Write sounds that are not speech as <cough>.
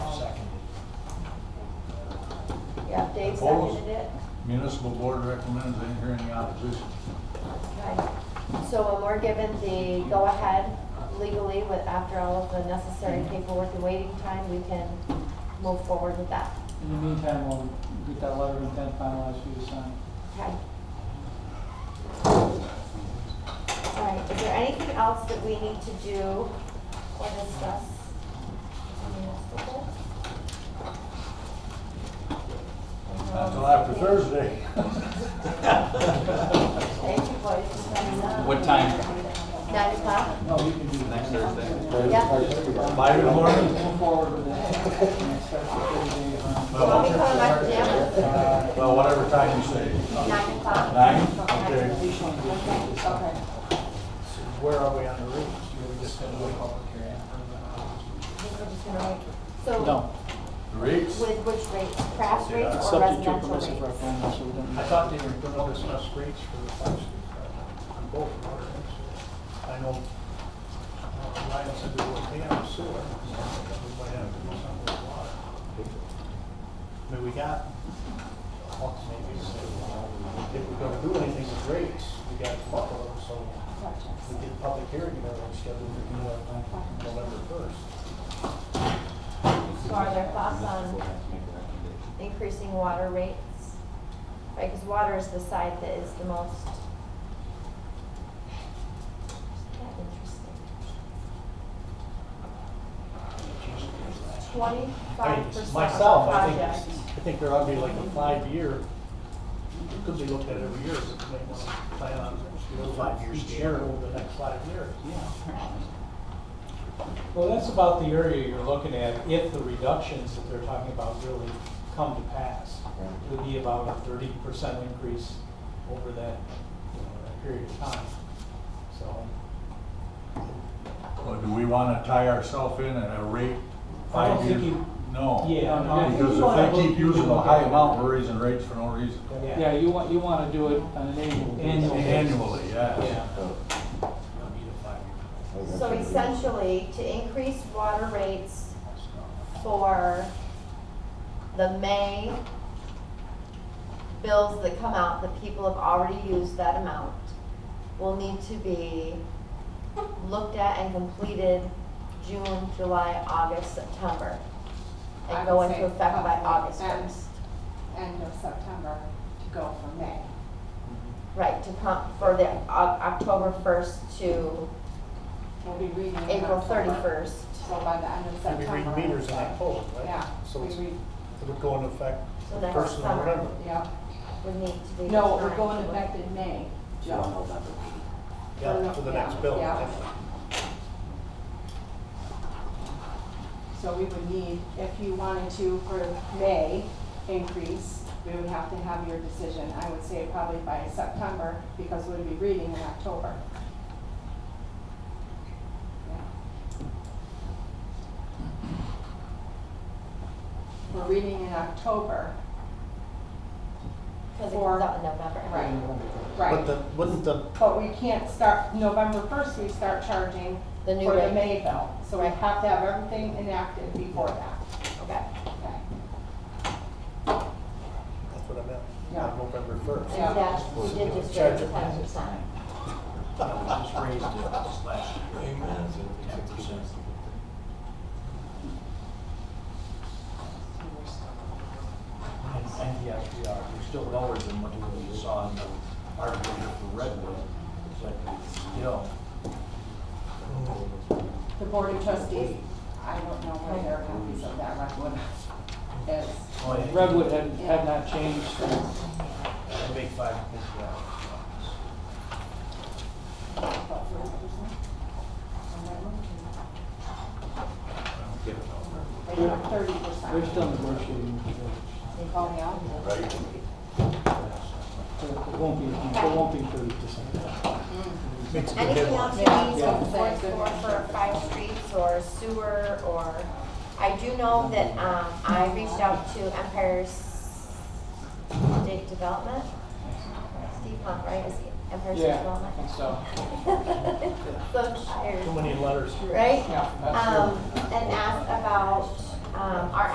Yeah, Dave Opposed? seconded it. Municipal board recommends, I didn't hear any opposition. Right. So when we're given the go-ahead legally with, after all of the necessary paperwork and waiting time, we can move forward with that. In the meantime, we'll get that letter of intent finalized for you to sign. Okay. All right, is there anything else that we need to do or discuss? Anything else to do? Not Uh, till after Thursday. Thank you, boys, for coming up. What time? Nine o'clock? No, you can do that. Next Thursday. Yeah. Five in the morning? Move forward <laughs> with that. And it's set for 30 days on- So I'll be coming back to them. Uh, Well, whatever time you say. Nine o'clock? Nine? Okay. Okay. Where are we on the route? So, No. The rates? with which rates, craft rates or Subject to a residential permissive rates? referendum, so we don't. I thought they were gonna discuss rates for the fire street project on both water and sewer. I know uh, Ryan said they were paying on sewer, so we might have to do something with water. I mean, we got, well, maybe, so, uh, if we're gonna do anything with rates, we got to buckle them, so we did public hearing, you know, scheduled for uh, November first. So are there thoughts on increasing water rates? Right, because water is the side that is the most. Isn't that interesting? I mean, Twenty-five percent Myself, I think, project. I think there ought to be like a five-year, it could be looked at every year, but they want to plan on five-year share over the next five years. Well, that's about the area you're looking at, if the reductions that they're talking about really come to pass. It would be about a thirty percent increase over that, you know, that period of time. So, Or do we want to tie ourselves in at a rate five don't years? think you- No. yeah. no, I think Because you wanna if they look- keep using the high amount, we're raising rates for no reason. Yeah, you want, you want to do it on an annual basis. Annual. Annually, yeah. Yeah. So essentially, to increase water rates for the May bills that come out, that people have already used that amount, will need to be looked at and completed June, July, August, September, I and go would into say effect by probably August end- first. End of September to go for May. Right, to come, for the Oc- October first to We'll be reading. in April October. thirty-first. So by the end of And we September. read meters in October, right? Yeah. So we it's, read- it would go into effect So that's first of summer. November. Yeah. would need to be. No, we're time. going to back in May, Joe. Yeah, for the next bill. Yeah. So we would need, if you wanted to for May increase, we would have to have your decision, I would say probably by September, because we'd be reading in October. Yeah. We're reading in October, Cause it for- comes out in November. right, But right. the, wouldn't the, But we can't start, November first, we start charging The new for the rate. May bill, so we have to have everything enacted before that, Okay. okay? that's what I meant, Yeah. on November first. Yeah. And that's, we did just raise Charge the it. ten percent. And, and yes, we are, we're still lower than what we saw in the article for Redwood, but still. The Board of Trustees, I don't know where their copies of that record is. Oh, yeah. Redwood had, had not changed since. A big five, yeah. They have thirty percent. They're still negotiating with the village. They call me out. Right. So It won't be, it won't be thirty percent. Anything else you need Yeah. to report for, for five streets or sewer or, I do know that, um, I reached out to Empire State Development. Steve Hunt, right, is he Empire State Yeah, I think Development? <laughs> So so. tired, Too many letters. right? Yeah, that's true. Um, and asked about, um, our